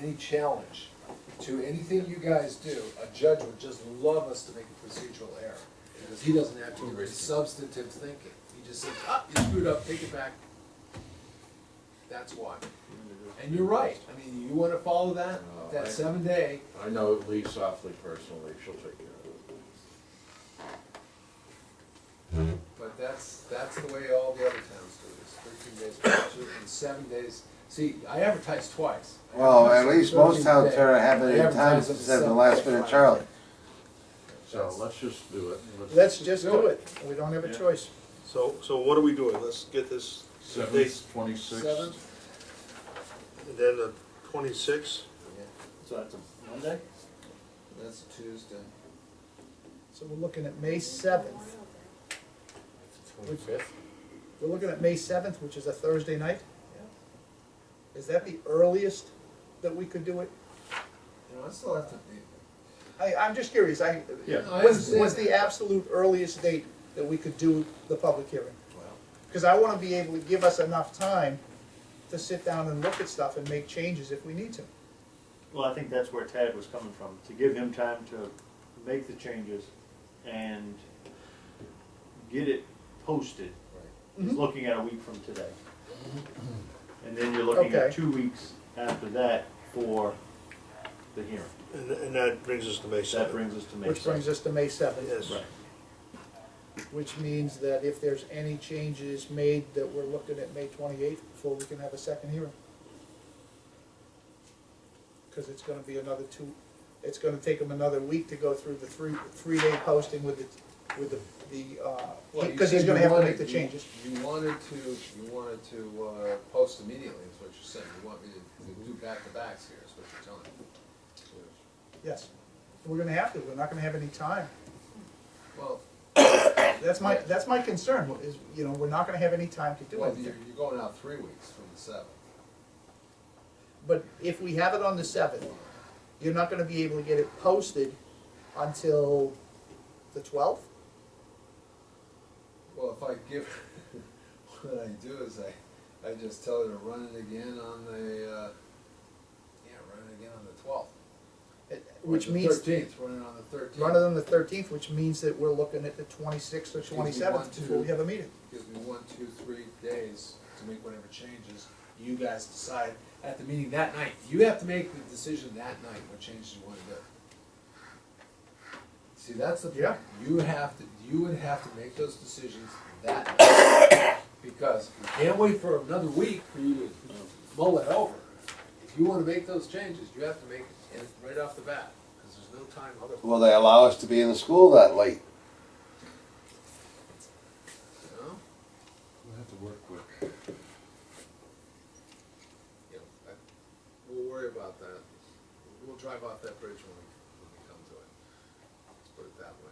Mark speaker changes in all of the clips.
Speaker 1: any challenge to anything you guys do, a judge would just love us to make a procedural error. Because he doesn't have to do substantive thinking, he just says, ah, you screwed up, take it back. That's why. And you're right, I mean, you wanna follow that, that seven day,
Speaker 2: I know Lee Softly personally, she'll take care of it.
Speaker 1: But that's, that's the way all the other towns do this, thirteen days, two, and seven days. See, I advertise twice. I
Speaker 3: Well, at
Speaker 1: advertise
Speaker 3: least
Speaker 1: the
Speaker 3: most
Speaker 1: 13th
Speaker 3: towns
Speaker 1: day.
Speaker 3: are have
Speaker 1: I
Speaker 3: it in time
Speaker 1: advertise on
Speaker 3: instead of the
Speaker 1: seventh
Speaker 3: last
Speaker 1: day.
Speaker 3: minute Charlie.
Speaker 2: So let's just do it.
Speaker 4: Let's just
Speaker 1: Do
Speaker 4: do
Speaker 1: it.
Speaker 4: it, we don't have a
Speaker 2: Yeah.
Speaker 4: choice.
Speaker 5: So, so what are we doing? Let's get this date,
Speaker 2: Seventh,
Speaker 1: Seventh?
Speaker 2: twenty-sixth.
Speaker 5: and then the twenty-sixth,
Speaker 1: Yeah,
Speaker 6: So that's a Monday?
Speaker 1: That's Tuesday.
Speaker 4: So we're looking at May seventh,
Speaker 1: Twenty-fifth?
Speaker 4: we're looking at May seventh, which is a Thursday night? Is that the earliest that we could do it?
Speaker 1: You know, I still have to be.
Speaker 4: I, I'm just curious, I,
Speaker 2: Yeah.
Speaker 1: I
Speaker 4: what's, what's
Speaker 1: understand.
Speaker 4: the absolute earliest date that we could do the public hearing? Because I wanna be able to give us enough time to sit down and look at stuff and make changes if we need to.
Speaker 6: Well, I think that's where Tad was coming from, to give him time to make the changes and get it posted. He's
Speaker 4: Mhm.
Speaker 6: looking at a week from today. And then you're looking at
Speaker 4: Okay.
Speaker 6: two weeks after that for the hearing.
Speaker 5: and, and that brings us to May
Speaker 6: That
Speaker 5: seventh.
Speaker 6: brings us to May
Speaker 4: Which brings us to May seventh.
Speaker 5: Yes,
Speaker 6: Right.
Speaker 4: Which means that if there's any changes made, that we're looking at May twenty-eighth before we can have a second hearing. Cause it's gonna be another two, it's gonna take them another week to go through the three, three-day posting with the, with the, the, uh,
Speaker 1: Well, you
Speaker 4: cause he's
Speaker 1: said
Speaker 4: gonna
Speaker 1: you
Speaker 4: have to make
Speaker 1: wanted-
Speaker 4: the
Speaker 1: you-
Speaker 4: changes.
Speaker 1: You wanted to, you wanted to, uh, post immediately, is what you're saying, you want me to to do back-to-backs here, is what you're telling me.
Speaker 4: Yes, we're gonna have to, we're not gonna have any time.
Speaker 1: Well,
Speaker 4: That's my, that's my concern, is, you know, we're not gonna have any time to do
Speaker 1: well,
Speaker 4: anything.
Speaker 1: you're, you're going out three weeks from the seventh.
Speaker 4: But if we have it on the seventh, you're not gonna be able to get it posted until the twelfth?
Speaker 1: Well, if I give, what I do is I, I just tell her to run it again on the, uh, yeah, run it again on the twelfth.
Speaker 4: Which means,
Speaker 1: Thirteenth, run it on the thirteenth.
Speaker 4: run it on the thirteenth, which means that we're looking at the twenty-sixth or
Speaker 1: Excuse me, one,
Speaker 4: twenty-seventh before we
Speaker 1: two.
Speaker 4: have a meeting.
Speaker 1: Gives me one, two, three days to make whatever changes. You guys decide at the meeting that night. You have to make the decision that night what changes you wanna do. See, that's the
Speaker 4: Yeah.
Speaker 1: point. You have to, you would have to make those decisions that night. Because we can't wait for another week for you to mull it over. If you wanna make those changes, you have to make it right off the bat, cause there's no time otherwise.
Speaker 3: Will they allow us to be in the school that late?
Speaker 1: you know?
Speaker 2: We'll have to work with.
Speaker 1: Yeah, I, we'll worry about that. We'll drive off that bridge when we, when we come to it. Let's put it that way.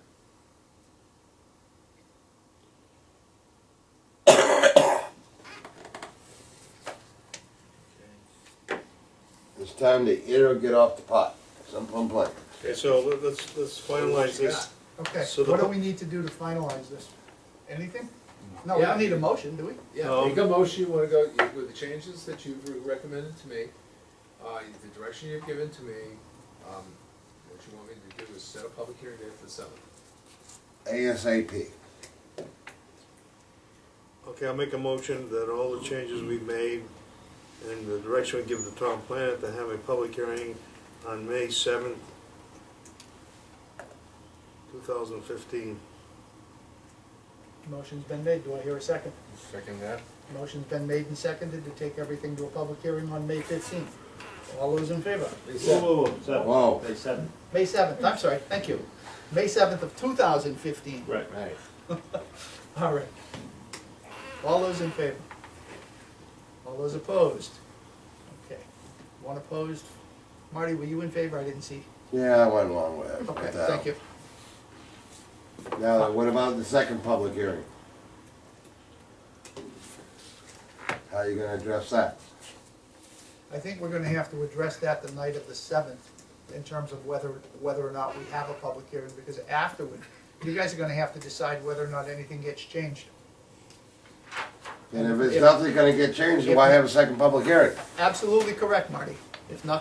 Speaker 3: It's time to eat or get off the pot. Some fun plan.
Speaker 5: okay, so let- let's, let's finalize this.
Speaker 4: Okay,
Speaker 5: So the
Speaker 4: what do
Speaker 5: po-
Speaker 4: we need to do to finalize this? Anything? No, we
Speaker 1: Yeah.
Speaker 4: don't need a motion, do we?
Speaker 1: Yeah,
Speaker 5: Um,
Speaker 1: make a motion, you wanna go with the changes that you've recommended to me, uh, the direction you've given to me. Um, what you want me to do is set a public hearing date for the seventh.
Speaker 3: ASAP.
Speaker 5: Okay, I'll make a motion that all the changes we've made and the direction we give the town planner to have a public hearing on May seventh, two thousand fifteen.
Speaker 4: Motion's been made, do I hear a second?
Speaker 2: Second that?
Speaker 4: Motion's been made and seconded to take everything to a public hearing on May fifteenth. All those in favor?
Speaker 6: Whoa, whoa, whoa, seven.
Speaker 3: Whoa.
Speaker 6: They seven.
Speaker 4: May seventh, I'm sorry, thank you. May seventh of two thousand fifteen.
Speaker 6: Right.
Speaker 2: Right.
Speaker 4: All right. All those in favor? All those opposed? Okay. One opposed. Marty, were you in favor? I didn't see.
Speaker 3: Yeah, I went along with it.
Speaker 4: Okay,
Speaker 3: But, uh,
Speaker 4: thank you.
Speaker 3: Now, what about the second public hearing? How are you gonna address that?
Speaker 4: I think we're gonna have to address that the night of the seventh in terms of whether, whether or not we have a public hearing, because afterward, you guys are gonna have to decide whether or not anything gets changed.
Speaker 3: And if it's
Speaker 4: If-
Speaker 3: nothing's gonna get changed, then why have a second public hearing?
Speaker 4: Absolutely correct, Marty. If not,